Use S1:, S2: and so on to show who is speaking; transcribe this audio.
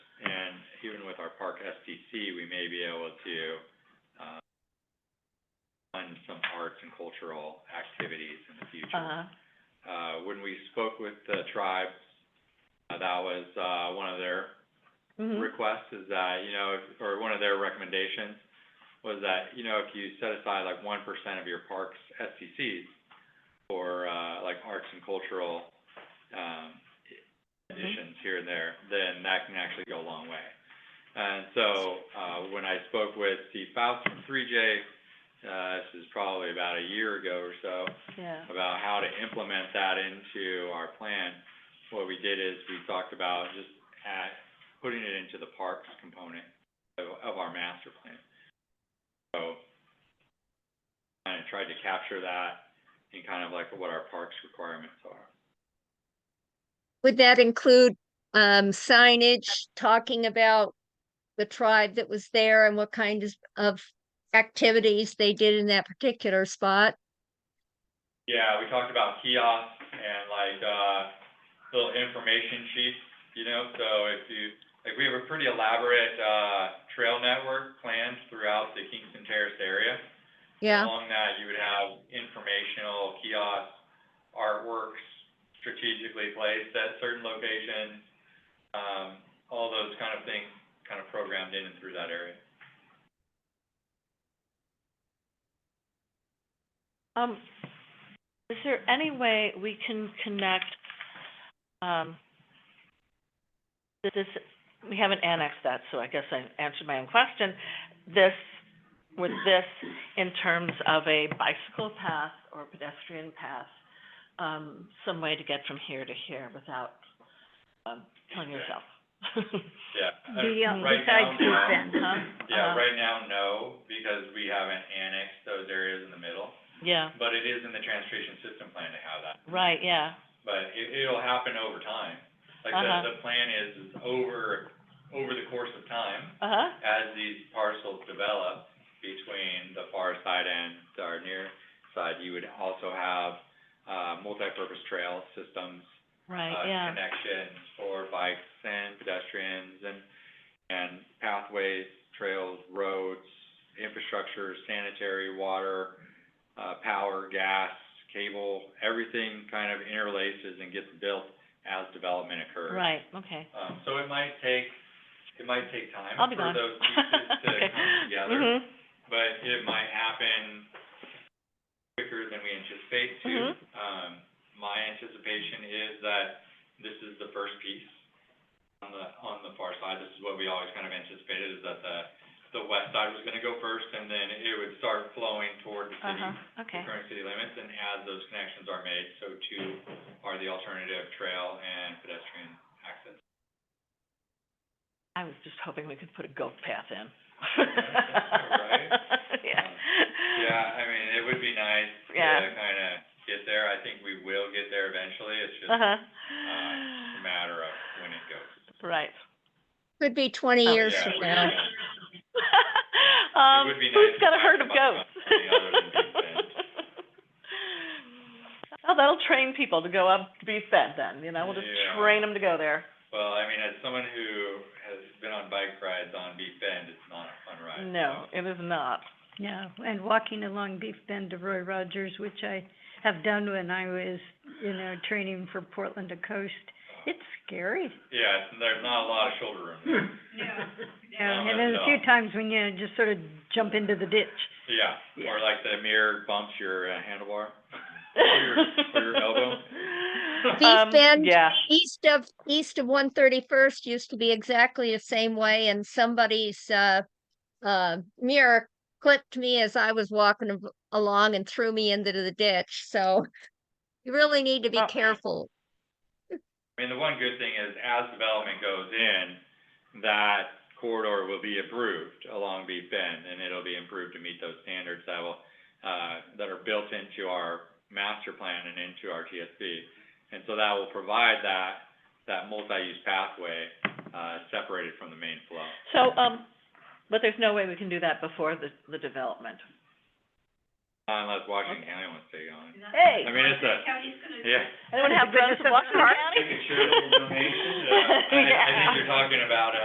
S1: even with our park SDC, we may be able to, uh, fund some arts and cultural activities in the future.
S2: Uh-huh,
S1: Uh, when we spoke with the tribes, uh, that was, uh, one of their
S2: mhm,
S1: request is that, you know, if- or one of their recommendations was that, you know, if you set aside like one percent of your park's SCCs for, uh, like arts and cultural, um, additions here and there, then that can actually go a long way. And so, uh, when I spoke with Steve Faust from three J, uh, this is probably about a year ago or so,
S2: yeah,
S1: about how to implement that into our plan, what we did is we talked about just at, putting it into the parks component of, of our master plan. So, kind of tried to capture that in kind of like what our parks requirements are.
S3: Would that include um signage talking about the tribe that was there and what kind is- of activities they did in that particular spot?
S1: Yeah, we talked about kiosks and like, uh, little information sheets, you know, so if you, like, we have a pretty elaborate, uh, trail network planned throughout the Kingston Terrace area.
S3: Yeah,
S1: Along that, you would have informational kiosks, artworks strategically placed at certain locations, um, all those kind of things kind of programmed in and through that area.
S2: um, is there any way we can connect, um, that this, we haven't annexed that, so I guess I answered my own question, this, with this, in terms of a bicycle path or pedestrian path, um, some way to get from here to here without, um, killing yourself.
S1: Yeah. uh,
S4: The, um,
S1: right now,
S4: besides the
S1: no.
S4: fence.
S2: Huh?
S1: Yeah,
S2: Uh,
S1: right now, no, because we haven't annexed those areas in the middle,
S2: Yeah,
S1: but it is in the transportation system plan to have that.
S2: right, yeah,
S1: But it, it'll happen over time. Like
S2: Uh-huh.
S1: the, the plan is, is over, over the course of time,
S2: uh-huh.
S1: as these parcels develop between the far side and our near side, you would also have, uh, multipurpose trail systems,
S2: Right,
S1: uh,
S2: yeah,
S1: connections for bikes and pedestrians and, and pathways, trails, roads, infrastructure, sanitary, water, uh, power, gas, cable, everything kind of interlaces and gets built as development occurs.
S2: right, okay.
S1: Um, so it might take, it might take time
S2: I'll be
S1: for
S2: gone.
S1: those pieces to
S2: Okay.
S1: come together,
S2: Mhm.
S1: but it might happen quicker than we anticipate too.
S2: Mhm.
S1: Um, my anticipation is that this is the first piece on the, on the far side. This is what we always kind of anticipated, is that the, the west side was gonna go first, and then it would start flowing toward the city,
S2: Uh-huh,
S1: the
S2: okay,
S1: current city limits, and as those connections are made, so too are the alternative trail and pedestrian access.
S2: I was just hoping we could put a goat path in.
S1: Right?
S2: Yeah.
S1: Yeah, I mean, it would be nice to
S2: Yeah.
S1: kinda get there, I think we will get there eventually, it's just a
S2: Uh-huh.
S1: matter of when it goes.
S2: Right.
S3: could be twenty
S2: Oh,
S3: years
S1: Yeah,
S3: from
S1: it would be
S3: now.
S1: nice.
S2: Um,
S1: would be nice
S2: who's
S1: to
S2: got a
S1: talk
S2: herd of
S1: about
S2: goats?
S1: something other than being fed.
S2: Oh, that'll train people to go up to be fed then, you know, we'll just
S1: Yeah.
S2: train them to go there.
S1: Well, I mean, as someone who has been on bike rides on Beef Bend, it's not a fun ride.
S2: No, it is not.
S4: No, and walking along Beef Bend to Roy Rogers, which I have done when I was, you know, training for Portland to Coast, it's scary.
S1: so- Yeah, it's- there's not a lot of shoulder room there.
S2: Hmm.
S4: Yeah, and there's a few times when you just sort of jump into the ditch.
S1: Yeah,
S4: Yeah.
S1: or like the mirror bumps your uh, handlebar, or your, or your elbow.
S2: Um,
S3: Beef Bend,
S2: Yeah,
S3: east of, east of one thirty-first used to be exactly the same way and somebody's, uh, uh, mirror clipped me as I was walking av- along and threw me into the ditch, so you really need to be
S2: Oh.
S3: careful.
S1: I mean, the one good thing is as development goes in, that corridor will be improved along Beef Bend and it'll be improved to meet those standards that will, uh, that are built into our master plan and into our TSB. And so that will provide that, that multi-use pathway, uh, separated from the main flow.
S2: so, um, but there's no way we can do that before the, the development.
S1: Unless Washington County wants to take it on.
S2: Hey,
S1: I mean, it's a, yeah.
S2: anyone have guns in Washington County?
S1: Making sure that we're donating, uh, I, I think you're talking about, uh,